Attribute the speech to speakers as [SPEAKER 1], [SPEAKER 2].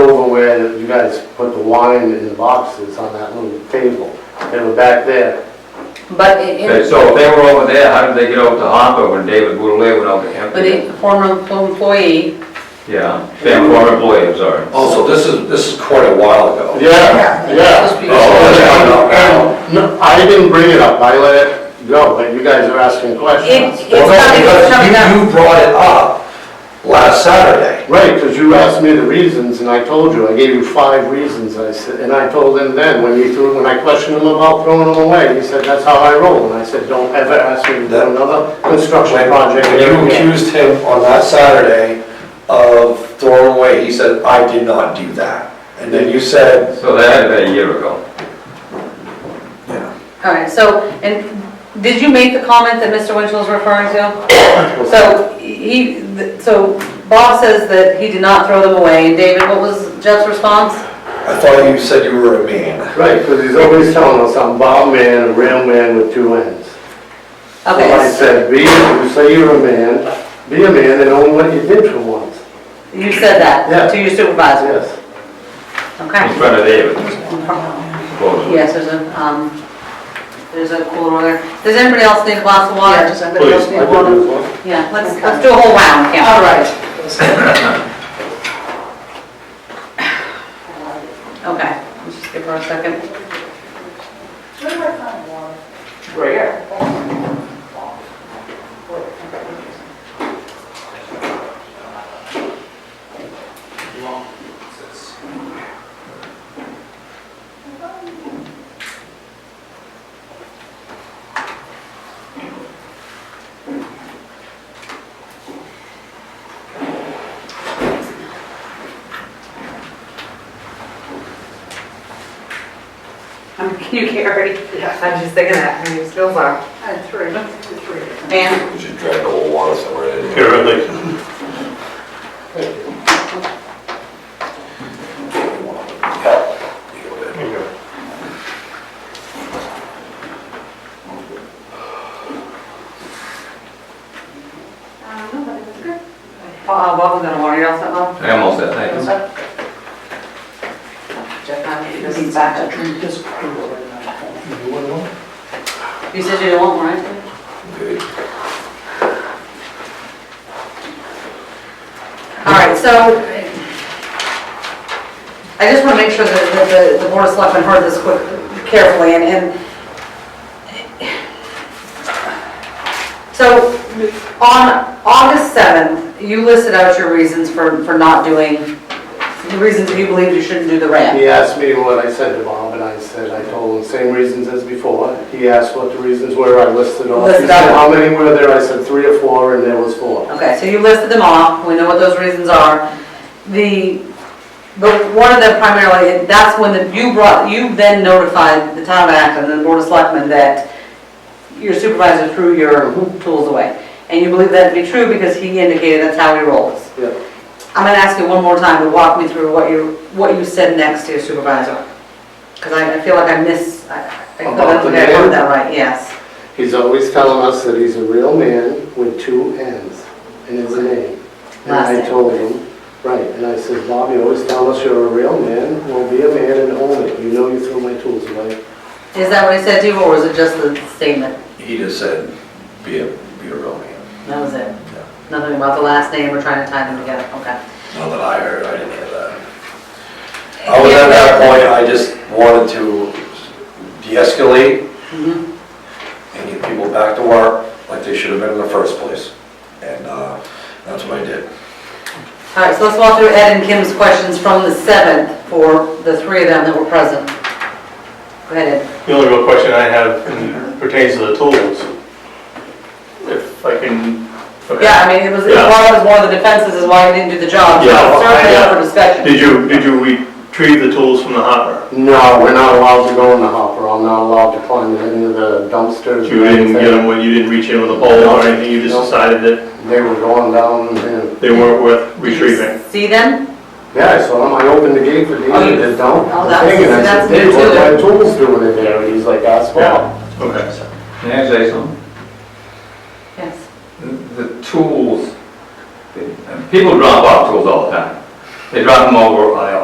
[SPEAKER 1] guys put the wine in the boxes on that little table. They were back there.
[SPEAKER 2] But it-
[SPEAKER 3] Okay,
[SPEAKER 2] it,
[SPEAKER 3] so if they were over there, how did they get over to Harper when David Boulay went out to
[SPEAKER 2] but
[SPEAKER 3] Hampton?
[SPEAKER 2] it, former employee,
[SPEAKER 3] Yeah, fam- former employee, I'm sorry.
[SPEAKER 4] Also, Oh, this is, this is quite a while ago.
[SPEAKER 1] Yeah,
[SPEAKER 2] yeah.
[SPEAKER 1] yeah.
[SPEAKER 4] Oh, yeah,
[SPEAKER 1] No, I didn't bring it up, I let it go, but you guys are asking
[SPEAKER 2] it,
[SPEAKER 1] questions.
[SPEAKER 2] it's
[SPEAKER 4] Well,
[SPEAKER 2] not, it's
[SPEAKER 4] no,
[SPEAKER 2] not
[SPEAKER 4] because you,
[SPEAKER 2] that.
[SPEAKER 4] you brought it up last Saturday.
[SPEAKER 1] Right, because you asked me the reasons, and I told you, I gave you five reasons, I said, and I told him then, when he threw, when I questioned him about throwing them away, he said, that's how I roll, and I said, don't ever ask me to do another construction project
[SPEAKER 4] When
[SPEAKER 1] ever
[SPEAKER 4] you
[SPEAKER 1] again.
[SPEAKER 4] accused him on that Saturday of throwing away, he said, I did not do that. And then you said,
[SPEAKER 3] So that had been a year ago.
[SPEAKER 2] All right, so, and did you make the comment that Mr. Winchell's referring to? So he, so Bob says that he did not throw them away, and David, what was Jeff's response?
[SPEAKER 4] I thought you said you were a man.
[SPEAKER 1] Right, because he's always telling us, I'm Bob man, a real man with two ends. So I
[SPEAKER 2] Okay,
[SPEAKER 1] said, be, you say you're a man, be a man and own what you did for once.
[SPEAKER 2] you said
[SPEAKER 1] Yeah.
[SPEAKER 2] that to your supervisor,
[SPEAKER 1] Yes.
[SPEAKER 3] In
[SPEAKER 2] okay?
[SPEAKER 3] front of David, supposedly.
[SPEAKER 2] Yes, there's a, um, there's a cooler there. Does anybody else need a glass of water?
[SPEAKER 5] Yeah, I'm
[SPEAKER 1] Please, I did
[SPEAKER 5] gonna go
[SPEAKER 1] this one.
[SPEAKER 2] Yeah, let's, let's do a whole round, yeah.
[SPEAKER 5] All right.
[SPEAKER 2] Okay, let's just give her a second. Um, Can you carry?
[SPEAKER 5] Yeah.
[SPEAKER 2] I'm just thinking that, and you still are.
[SPEAKER 5] And three, three.
[SPEAKER 2] And,
[SPEAKER 4] You should drag a little water somewhere in here.
[SPEAKER 2] Bob, Bob was gonna warn you also, Bob?
[SPEAKER 3] I almost said, thank you.
[SPEAKER 2] Jeff, I'm- this is back. You said you didn't want one, right? All right, so I just want to make sure that that the, the board of selectmen heard this quick, carefully, and, and so on August 7th, you listed out your reasons for, for not doing, the reasons that you believed you shouldn't do the ramp.
[SPEAKER 1] He asked me what I said to Bob, and I said, I told him the same reasons as before. He asked what the reasons were, I listed off. He
[SPEAKER 2] Listed
[SPEAKER 1] said,
[SPEAKER 2] off.
[SPEAKER 1] how many were there? I said, three or four, and there was four.
[SPEAKER 2] Okay, so you listed them off, we know what those reasons are. The, the, one of them primarily, that's when the- you brought, you then notified the town of Acton and the board of selectmen that your supervisor threw your tools away. And you believe that to be true because he indicated that's how he rolls.
[SPEAKER 1] Yeah.
[SPEAKER 2] I'm gonna ask you one more time to walk me through what you, what you said next to your supervisor. Because I, I feel like I miss, I, I don't
[SPEAKER 1] About the
[SPEAKER 2] think I
[SPEAKER 1] man?
[SPEAKER 2] heard that right, yes.
[SPEAKER 1] He's always telling us that he's a real man with two ends in his name. And I
[SPEAKER 2] Last
[SPEAKER 1] told him, right, and I said, Bob, you always tell us you're a real man, well, be a man and own it. You know you threw my tools away.
[SPEAKER 2] Is that what he said to you, or was it just the statement?
[SPEAKER 4] He just said, be a, be a real man.
[SPEAKER 2] That was it? Nothing about the last name, we're trying to tie them together, okay.
[SPEAKER 4] Not that I heard, I didn't hear that. I was at that point, I just wanted to de-escalate
[SPEAKER 2] Mhm.
[SPEAKER 4] and get people back to work like they should have been in the first place. And uh, that's what I did.
[SPEAKER 2] All right, so let's walk through Ed and Kim's questions from the 7th for the three of them that were present. Go ahead, Ed.
[SPEAKER 6] The only real question I have pertains to the tools. If I can. okay.
[SPEAKER 2] Yeah, I mean, it was, it
[SPEAKER 6] Yeah.
[SPEAKER 2] was one of the defenses is why you didn't do the job, so
[SPEAKER 6] Yeah,
[SPEAKER 2] it's certainly
[SPEAKER 6] I,
[SPEAKER 2] up
[SPEAKER 6] uh,
[SPEAKER 2] for discussion.
[SPEAKER 6] Did you, did you retrieve the tools from the hopper?
[SPEAKER 1] No, we're not allowed to go in the hopper. I'm not allowed to climb any of the dumpsters.
[SPEAKER 6] You
[SPEAKER 1] or
[SPEAKER 6] didn't get
[SPEAKER 1] anything.
[SPEAKER 6] them, when you didn't reach in with a pole or anything, you just
[SPEAKER 1] No.
[SPEAKER 6] decided that
[SPEAKER 1] They were going down and,
[SPEAKER 6] they weren't worth
[SPEAKER 2] Did you
[SPEAKER 6] retrieving?
[SPEAKER 2] See them?
[SPEAKER 1] yeah, I saw him, I opened the gate for Dean,
[SPEAKER 2] Oh, you-
[SPEAKER 1] and they don't.
[SPEAKER 2] oh, that's-
[SPEAKER 1] And I
[SPEAKER 2] that's
[SPEAKER 1] said, "Dave,
[SPEAKER 2] new
[SPEAKER 1] what are
[SPEAKER 2] too."
[SPEAKER 1] my tools doing in there? And he's like, that's wrong.
[SPEAKER 6] Okay.
[SPEAKER 3] Can I say something?
[SPEAKER 2] Yes.
[SPEAKER 3] The- The tools, the- and people drop off tools all the time. They drop them over, uh,